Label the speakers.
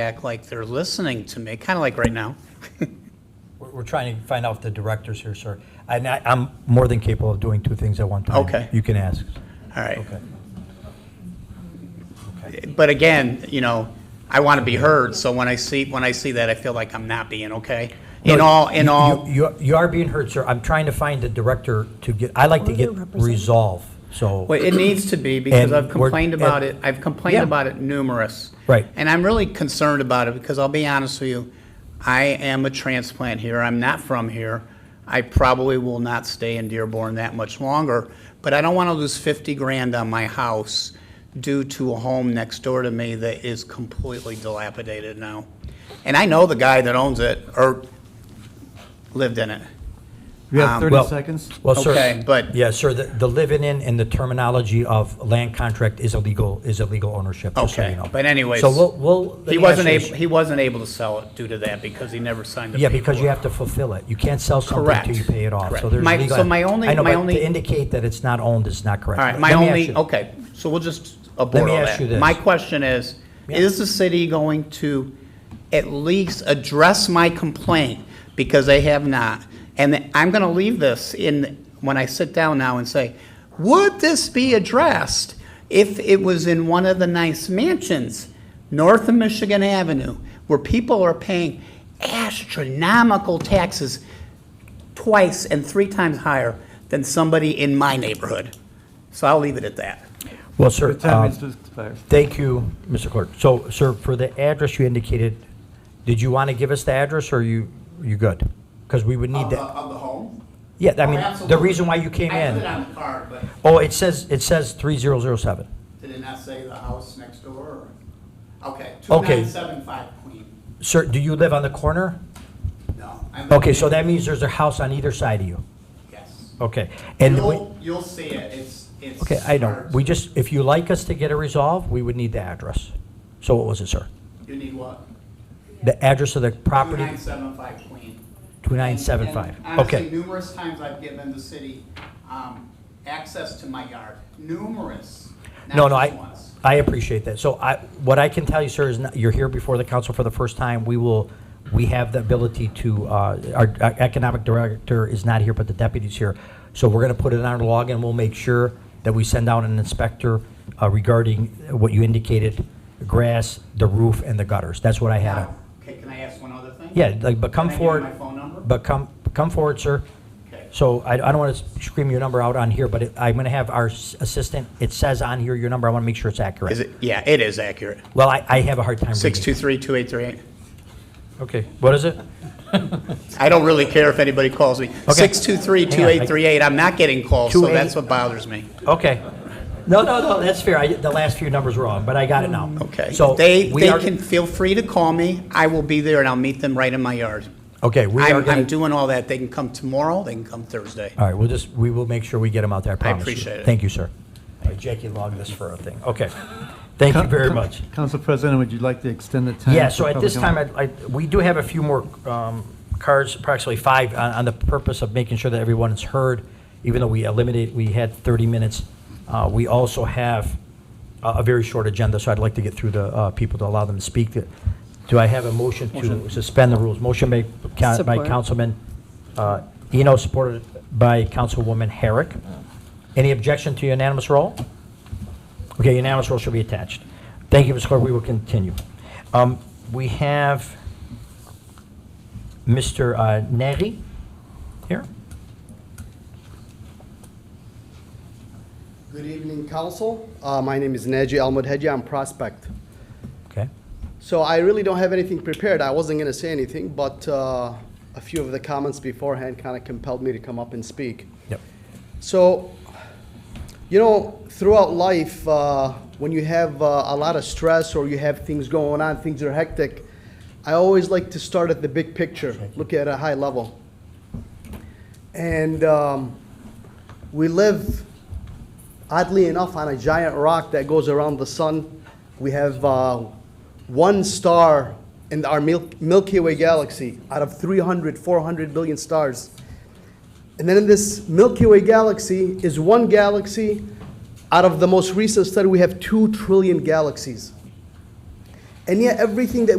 Speaker 1: act like they're listening to me, kind of like right now.
Speaker 2: We're we're trying to find out the directors here, sir. And I- I'm more than capable of doing two things at one time.
Speaker 1: Okay.
Speaker 2: You can ask.
Speaker 1: All right.
Speaker 2: Okay.
Speaker 1: But again, you know, I want to be heard, so when I see, when I see that, I feel like I'm not being okay. In
Speaker 2: No,
Speaker 1: all, in
Speaker 2: you-
Speaker 1: all,
Speaker 2: You you are being heard, sir. I'm trying to find the director to get, I like to get resolve, so.
Speaker 1: well, it needs to be because
Speaker 2: And
Speaker 1: I've
Speaker 2: we're-
Speaker 1: complained about it,
Speaker 2: and-
Speaker 1: I've complained
Speaker 2: Yeah.
Speaker 1: about it numerous.
Speaker 2: Right.
Speaker 1: And I'm really concerned about it because I'll be honest with you, I am a transplant here. I'm not from here. I probably will not stay in Dearborn that much longer, but I don't want to lose 50 grand on my house due to a home next door to me that is completely dilapidated now. And I know the guy that owns it or lived in it.
Speaker 3: We have
Speaker 2: Um, Well-
Speaker 3: 30 seconds.
Speaker 2: Well, sir.
Speaker 1: Okay, but-
Speaker 2: Yeah, sir, the the living in and the terminology of land contract is illegal, is illegal ownership, just so
Speaker 1: Okay,
Speaker 2: you know.
Speaker 1: but anyways,
Speaker 2: So we'll, we'll.
Speaker 1: He wasn't
Speaker 2: actually-
Speaker 1: able, he wasn't able to sell it due to that because he never signed the
Speaker 2: Yeah,
Speaker 1: paperwork.
Speaker 2: because you have to fulfill it. You can't sell something
Speaker 1: Correct.
Speaker 2: until you pay it off.
Speaker 1: Correct.
Speaker 2: So there's
Speaker 1: My-
Speaker 2: legal.
Speaker 1: so my only-
Speaker 2: I know,
Speaker 1: my
Speaker 2: but
Speaker 1: only-
Speaker 2: to indicate that it's not owned is not correct.
Speaker 1: All right,
Speaker 2: Let
Speaker 1: my
Speaker 2: me ask
Speaker 1: only,
Speaker 2: you-
Speaker 1: okay, so we'll just uh, abort
Speaker 2: me
Speaker 1: all
Speaker 2: ask you
Speaker 1: that.
Speaker 2: this.
Speaker 1: My question is,
Speaker 2: Yeah.
Speaker 1: is the city going to at least address my complaint? Because they have not. And I'm going to leave this in, when I sit down now and say, would this be addressed if it was in one of the nice mansions north of Michigan Avenue, where people are paying astronomical taxes twice and three times higher than somebody in my neighborhood. So I'll leave it at that.
Speaker 2: Well, sir,
Speaker 3: The
Speaker 2: um,
Speaker 3: time is expired.
Speaker 2: thank you, Mr. Clerk. So, sir, for the address you indicated, did you want to give us the address, or are you, you good? Because we would need that.
Speaker 1: the home?
Speaker 2: Yeah, I
Speaker 1: oh,
Speaker 2: mean, the reason why you came in.
Speaker 1: the card, but
Speaker 2: Oh, it says, it says 3007.
Speaker 1: did it not say the house next door? Okay,
Speaker 2: Okay.
Speaker 1: 2975 Queen.
Speaker 2: Sir, do you live on the corner?
Speaker 1: No.
Speaker 2: Okay, so that means there's a house on either side of you.
Speaker 1: Yes.
Speaker 2: Okay. And we-
Speaker 1: you'll see it, it's, it's.
Speaker 2: Okay, I know. We just, if you like us to get a resolve, we would need the address. So what was it, sir?
Speaker 1: You need what?
Speaker 2: The address of the property?
Speaker 1: 2975 Queen.
Speaker 2: 2975.
Speaker 1: And- and Honestly,
Speaker 2: Okay.
Speaker 1: numerous times I've given the city um, access to my yard, numerous,
Speaker 2: No,
Speaker 1: not
Speaker 2: no,
Speaker 1: just
Speaker 2: I,
Speaker 1: once.
Speaker 2: I appreciate that. So I, what I can tell you, sir, is not- you're here before the council for the first time. We will, we have the ability to, uh, our our economic director is not here, but the deputy's here. So we're going to put it on our log and we'll make sure that we send out an inspector uh, regarding what you indicated, the grass, the roof, and the gutters. That's what I had. on.
Speaker 1: Okay, can I ask one other thing?
Speaker 2: Yeah, like, but
Speaker 1: Can
Speaker 2: come
Speaker 1: I give you
Speaker 2: forward.
Speaker 1: my phone number?
Speaker 2: But come, come forward, sir.
Speaker 1: Okay.
Speaker 2: So I, I don't want to scream your number out on here, but it- I'm going to have our s- assistant, it says on here your number, I want to make sure it's
Speaker 1: Is
Speaker 2: accurate.
Speaker 1: it, yeah, it is accurate.
Speaker 2: Well, I, I have a hard time reading.
Speaker 1: 623-2838.
Speaker 2: Okay, what is it?
Speaker 1: I don't really care if anybody calls me. 623-2838, I'm not getting calls, so
Speaker 2: 28.
Speaker 1: that's what bothers me.
Speaker 2: Okay. No, no, no, that's fair. I, the last few numbers were wrong, but I got it now.
Speaker 1: Okay.
Speaker 2: So
Speaker 1: They,
Speaker 2: we
Speaker 1: they
Speaker 2: are-
Speaker 1: can feel free to call me. I will be there and I'll meet them right in my yard.
Speaker 2: Okay, we are
Speaker 1: I'm, I'm
Speaker 2: going to,
Speaker 1: doing all that. They can come tomorrow, they can come Thursday.
Speaker 2: all right, we'll just, we will make sure we get them out there, I promise you.
Speaker 1: appreciate it.
Speaker 2: Thank you, sir. All right, Jackie logged this for a thing. Okay. Thank you very much.
Speaker 3: Council President, would you like to extend the time?
Speaker 2: Yeah,
Speaker 3: for
Speaker 2: so at this time,
Speaker 3: public
Speaker 2: I, we do have a few more um, cards, approximately five, on, on the purpose of making sure that everyone is heard, even though we eliminated, we had 30 minutes. Uh, We also have a, a very short agenda, so I'd like to get through the uh, people to allow them to speak. Do I have a motion to suspend the rules? Motion made ca- by
Speaker 4: Support.
Speaker 2: Councilman uh, Eno, supported by Councilwoman Herrick. Any objection to unanimous roll? Okay, unanimous roll shall be attached. Thank you, Mr. Clerk, we will continue. Um, We have Mr. uh, Neri here.
Speaker 5: Good evening, Council. Uh, My name is Naji Almudhedji. I'm Prospect.
Speaker 2: Okay,
Speaker 5: So I really don't have anything prepared. I wasn't going to say anything, but uh, a few of the comments beforehand kind of compelled me to come up and speak.
Speaker 2: yep.
Speaker 5: So, you know, throughout life, uh, when you have uh, a lot of stress or you have things going on, things are hectic, I always like to start at the big picture, look at a high level. And um, we live, oddly enough, on a giant rock that goes around the sun. We have uh, one star in our Mil- Milky Way galaxy out of 300, 400 billion stars. And then in this Milky Way galaxy is one galaxy. Out of the most recent study, we have two trillion galaxies. And yet, everything that